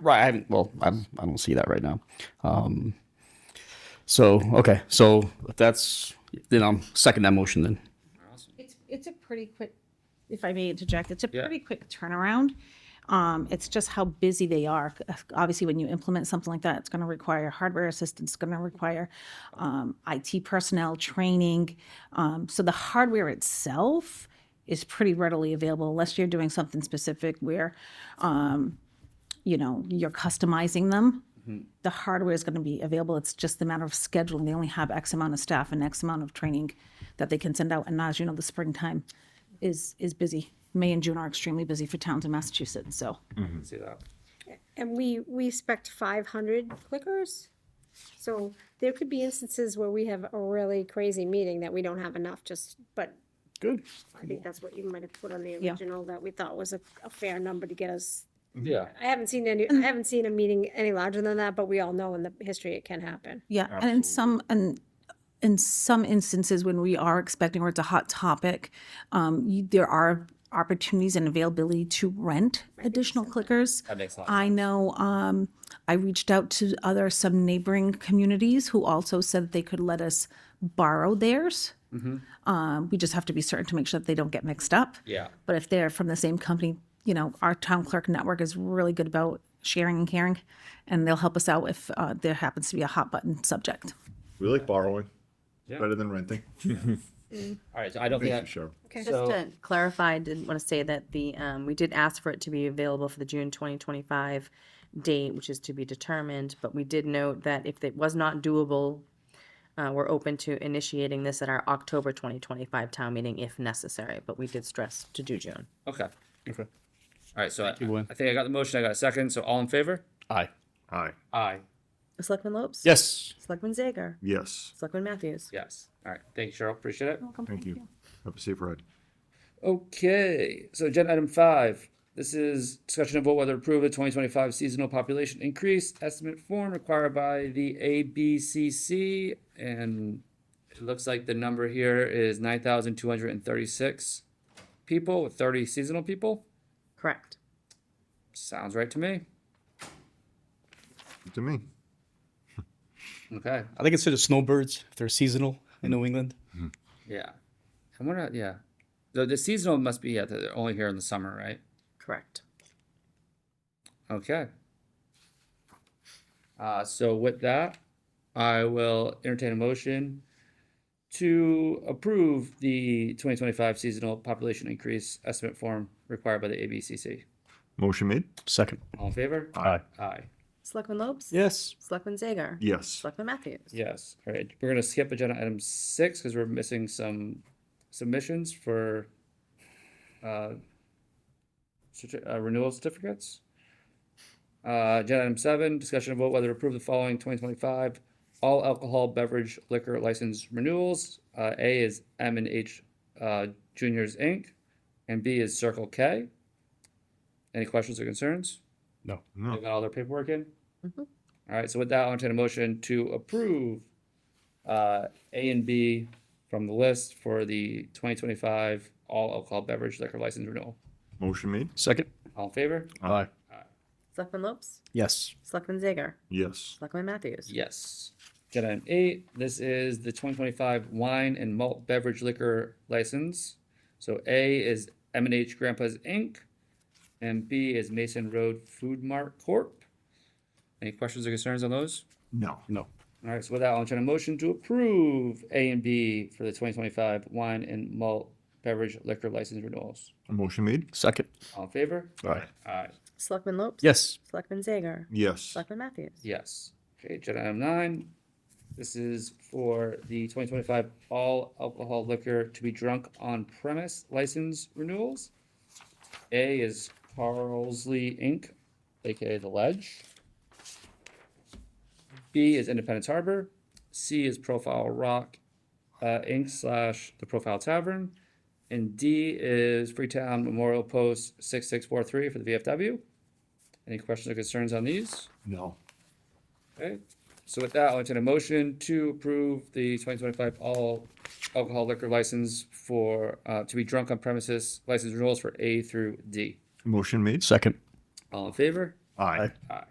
Right. I'm, well, I'm, I don't see that right now. Um, so okay. So if that's then I'm second that motion then. It's, it's a pretty quick, if I may interject, it's a Yeah. pretty quick turnaround. Um, It's just how busy they are. Obviously, when you implement something like that, it's going to require hardware assistance, it's going to require um, IT personnel training. Um, So the hardware itself is pretty readily available unless you're doing something specific where, um, you know, you're customizing them. The hardware is going to be available. It's just a matter of scheduling. They only have X amount of staff and X amount of training that they can send out. And as you know, the springtime is is busy. May and June are extremely busy for towns in Massachusetts. So See that. And we, we expect five hundred clickers. So there could be instances where we have a really crazy meeting that we don't have enough, just, but Good. I think that's what you might have put on the Yeah. original that we thought was a, a fair number to get us. Yeah. I haven't seen any, I haven't seen a meeting any larger than that, but we all know in the history it can happen. yeah, and in some and in some instances when we are expecting or it's a hot topic, um, you, there are opportunities and availability to rent additional clickers. That makes a lot of I know um, I reached out to other some neighboring communities who also said they could let us borrow theirs. Um, we just have to be certain to make sure that they don't get mixed up. Mm-hmm. Yeah. But if they're from the same company, you know, our town clerk network is really good about sharing and caring, and they'll help us out if uh, there happens to be a hot button subject. We like borrowing Yeah. better than renting. All right, so I don't think Thank you, that, Cheryl. Just So- to clarify, I did want to say that the, um, we did ask for it to be available for the June twenty twenty-five date, which is to be determined, but we did note that if it was not doable, uh, we're open to initiating this at our October twenty twenty-five town meeting if necessary, but we did stress to do June. okay. Okay. All right, so I, Gwen. I think I got the motion, I got a second, so all in favor? Aye. Aye. Aye. Selectman Lopes? Yes. Selectman Zager? Yes. Selectman Matthews? Yes. All right, thank you, Cheryl, appreciate it. Thank you. Have a safe ride. Okay, so agenda item five. This is discussion of vote whether to approve the twenty twenty-five seasonal population increase estimate form required by the ABCC. And it looks like the number here is nine thousand two hundred and thirty-six people, with thirty seasonal people. Correct. Sounds right to me. To me. Okay, I think it's the snowbirds if they're seasonal in New England. yeah. I wonder, yeah. The, the seasonal must be, yeah, they're only here in the summer, right? Correct. Okay. Uh, so with that, I will entertain a motion to approve the twenty twenty-five seasonal population increase estimate form required by the ABCC. Motion made? Second. All in favor? Aye. Aye. Selectman Lopes? Yes. Selectman Zager? Yes. Selectman Matthews? Yes, all right. We're gonna skip agenda item six because we're missing some submissions for uh, certi- uh, renewal certificates. Uh, agenda item seven, discussion of vote whether to approve the following twenty twenty-five all alcohol beverage liquor license renewals. Uh, A is M and H uh, Juniors Inc. and B is Circle K. Any questions or concerns? No. They No. got all their paperwork in? All right, so with that, I'll entertain a motion to approve uh, A and B from the list for the twenty twenty-five all alcohol beverage liquor license renewal. Motion made? Second. All in favor? Aye. Selectman Lopes? Yes. Selectman Zager? Yes. Selectman Matthews? Yes. Agenda item eight, this is the twenty twenty-five wine and malt beverage liquor license. So A is M and H Grandpa's Inc. And B is Mason Road Food Mart Corp. Any questions or concerns on those? No. No. All right, so with that, I'll entertain a motion to approve A and B for the twenty twenty-five wine and malt beverage liquor license renewals. Motion made? Second. All in favor? Aye. Aye. Selectman Lopes? Yes. Selectman Zager? Yes. Selectman Matthews? Yes. Okay, agenda item nine. This is for the twenty twenty-five all alcohol liquor to be drunk on premise license renewals. A is Carlsley Inc., AKA The Ledge. B is Independence Harbor. C is Profile Rock, uh, Inc. slash The Profile Tavern. And D is Freetown Memorial Post six six four three for the VFW. Any questions or concerns on these? No. Okay, so with that, I'll entertain a motion to approve the twenty twenty-five all alcohol liquor license for, uh, to be drunk on premises license renewals for A through D. Motion made? Second. All in favor? Aye. Aye.